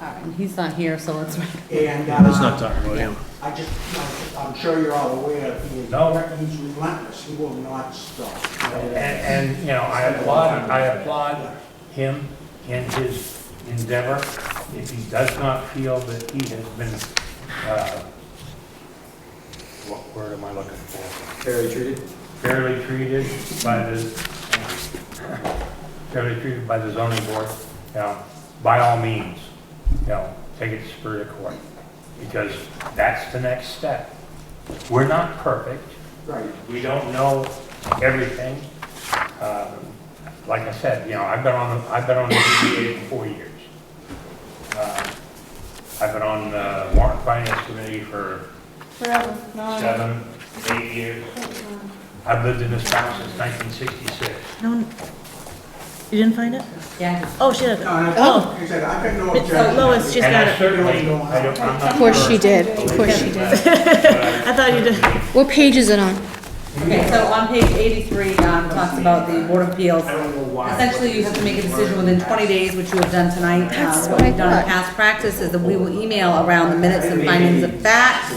all right. And he's not here, so let's, And, Let's not uh, talk about him. I just, I'm sure you're all aware, he is, No. he's relentless, he will not stop. And, and, you know, I applaud, I applaud him in his endeavor. If he does not feel that he has been, uh, what word am I looking for? Fairly treated? Fairly treated by the, fairly treated by the zoning board, you know, by all means, you know, take it to Superior Court. Because that's the next step. We're not perfect. Right, We don't know everything. Um, Like I said, you know, I've been on, the I've been on the ZBA for four years. Uh, I've been on the warrant finance committee for Forever, no, seven, eight years. I've lived in this town since 1966. No, You didn't find it? yeah. Oh, she had No, and it. I- Oh. like I said, I've got no It's, uh, objection. Lois just- She's And got I it. certainly, I don't, I'm not. Of course she perfect, did, of course she did. but I thought you did. What page is it on? Okay, so on page 83, um, talks about the Board of Appeals. I don't know why. Essentially, you have to make a decision within 20 days, which you have done tonight. That's what I We've done in thought. past practice is that we will email around the minutes and findings of facts.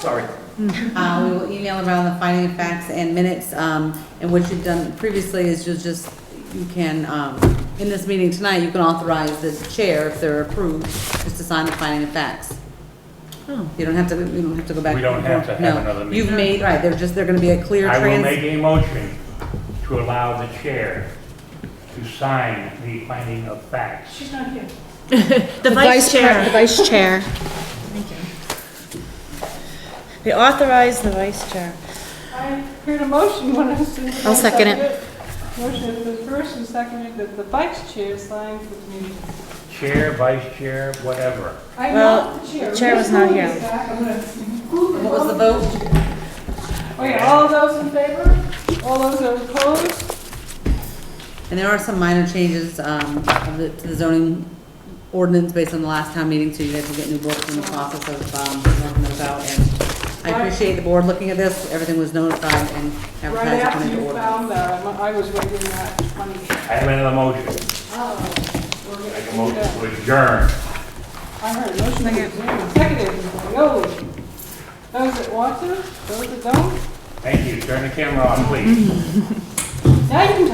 Sorry. Uh, we will email around the finding of facts and minutes, um, and what you've done previously is you'll just, you can, um, in this meeting tonight, you can authorize the chair, if they're approved, just to sign the finding of facts. You don't have to, you don't have to go back. We don't have to have No. another meeting. You've made, right, they're just, they're gonna be a clear I will make trans. a motion to allow the chair to sign the finding of facts. she's not here. The vice pre- The chair. vice chair. They authorized the vice chair. I heard a motion when I was. I'll second it. Motion has been first and seconded that the vice chair signs the meeting. Chair, vice chair, whatever. I'm Well, not the chair. the chair was not here. What was the vote? Okay, all those in favor? All those that are opposed? And there are some minor changes, um, of the, to the zoning ordinance based on the last town meeting, so you guys will get new books in the process of, um, working those out. And I appreciate the board looking at this, everything was notified and Right advertised after according to you order. found that, I'm- I was waiting that 20. I have another motion. Oh, we're gonna Make a do motion that. to adjourn. I heard a motion to adjourn, seconded, no. Those that want to, those that don't, Thank you. Turn the camera on, please. now you can